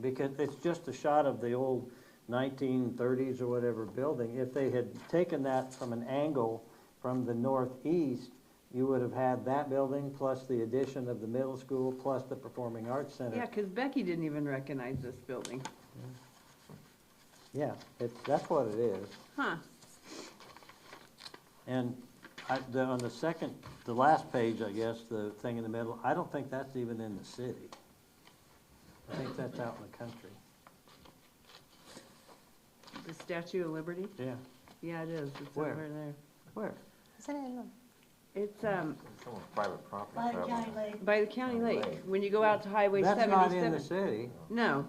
Because it's just a shot of the old nineteen thirties or whatever building. If they had taken that from an angle from the northeast, you would have had that building plus the addition of the middle school plus the Performing Arts Yeah, Center. because Becky didn't even recognize this building. Yeah, it's, that's what it is. Huh, And I, the, on the second, the last page, I guess, the thing in the middle, I don't think that's even in the city. I think that's out in the country. the Statue of Liberty? Yeah. Yeah, it is. It's Where? over there. Where? Isn't it in the It's, um, Someone's private property. By the probably. County Lake? by the county lake, when you go out to Highway That's not in the seventy-seven. city. No.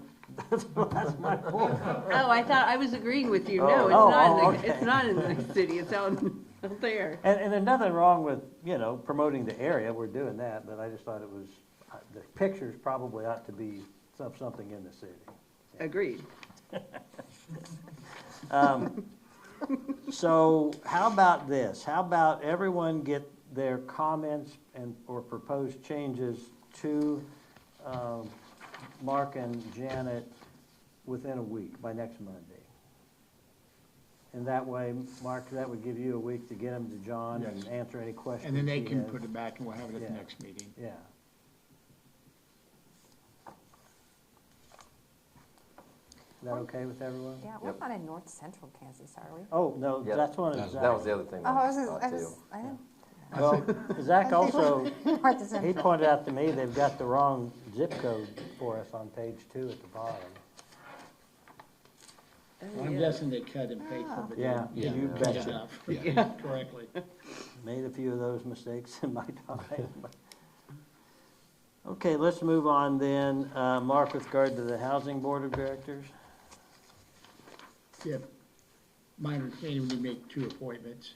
That's my point. Oh, I thought, I was agreeing with you. No, Oh. it's Oh, not, oh, in the- it's okay. not in the city. It's out, out there. And, and there's nothing wrong with, you know, promoting the area, we're doing that, but I just thought it was, uh, the pictures probably ought to be some, something in the city. Agreed. So how about this? How about everyone get their comments and, or proposed changes to, um, Mark and Janet within a week, by next Monday? And that way, Mark, that would give you a week to get them to John and Yes. answer any questions. And then they he can has. put it back and we'll have it at the Yeah. next meeting. Yeah. Is that okay with everyone? Yeah, we're not in north central Kansas, are we? Oh, no, Yeah, that's one of That was the Zach. other thing. Oh, I was, thought I too. was, I didn't. Well, Zach also, North he central. pointed out to me they've got the wrong zip code for us on page two at the bottom. I'm guessing they cut and paid for it. Yeah, Yeah. you Cut it betcha. up. Yeah, correctly. Made a few of those mistakes in my time. Okay, let's move on then. Uh, Mark, with regard to the Housing Board of Directors? Yeah. My understanding, we make two appointments.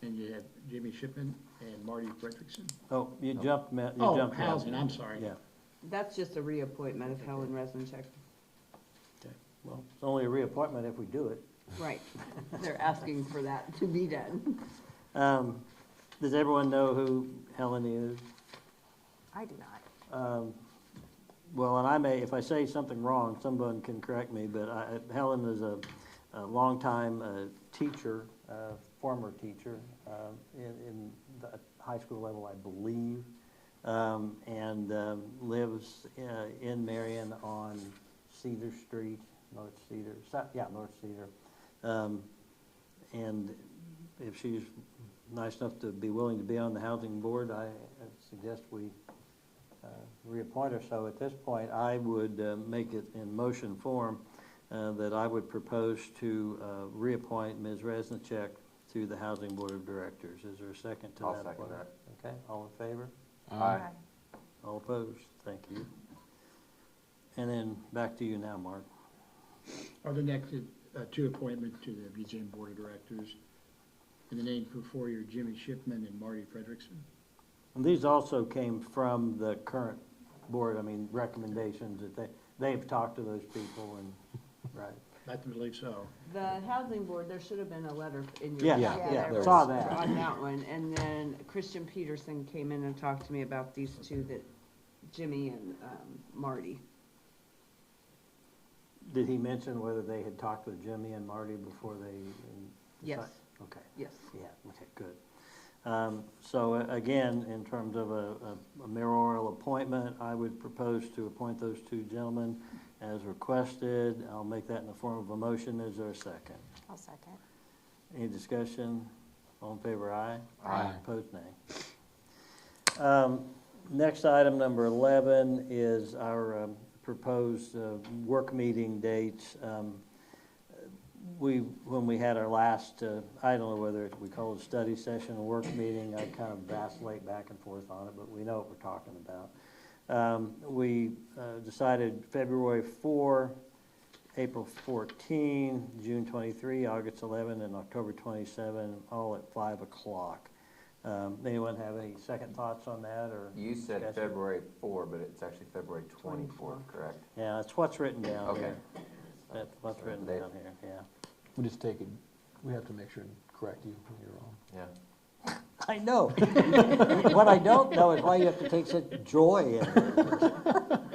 And you have Jimmy Shipman and Marty Fredrickson. Oh, you jumped, ma- you Oh, jumped. out. housing, I'm sorry. Yeah. That's just a reappointment of Helen Resincheck. Well, it's only a reappointment if we do it. Right. They're asking for that to be done. Um, Does everyone know who Helen is? I do not. Um, Well, and I may, if I say something wrong, someone can correct me, but I- Helen is a a longtime uh, teacher, uh, former teacher uh, in in the high school level, I believe, um, and um, lives uh, in Marion on Cedar Street, North Cedar, so- yeah, North Cedar. Um, And if she's nice enough to be willing to be on the housing board, I uh, suggest we uh, reappoint her. So at this point, I would uh, make it in motion form uh, that I would propose to uh, reappoint Ms. Resnick to the Housing Board of Directors. Is there a second to that? I'll second appointment? that. Okay, all in favor? Aye. All opposed? Thank you. And then back to you now, Mark. Are the next, uh, two appointments to the Museum Board of Directors. And the names before you are Jimmy Shipman and Marty Fredrickson. And these also came from the current board, I mean, recommendations that they, they've talked to those people and, right. I believe so. The housing board, there should have been a letter in your. Yeah, packet. Yeah, yeah, there saw that. on that one, and then Christian Peterson came in and talked to me about these two that Jimmy and um, Marty. Did he mention whether they had talked with Jimmy and Marty before they? um, Yes. decide- Okay, Yes. yeah, okay, good. Um, So uh, again, in terms of a a- a mayoral appointment, I would propose to appoint those two gentlemen as requested. I'll make that in the form of a motion. Is there a second? I'll second. Any discussion? All in favor, aye? Aye. Opposed, nay. Um, Next item, number 11, is our um, proposed uh, work meeting dates. Um, We, when we had our last, uh, I don't know whether we call it a study session, a work meeting, I kind of vacillate back and forth on it, but we know what we're talking about. Um, We uh, decided February 4 April 14, June 23, August 11, and October 27, all at 5 o'clock. Um, Anyone have any second thoughts on that, or? You said discussion? February four, but it's actually February twenty-fourth, correct? Yeah, that's what's written down Okay. here. That's what's written They- down here, yeah. We just take it, we have to make sure and correct you when you're wrong. Yeah. I know. What I don't know is why you have to take such joy in it.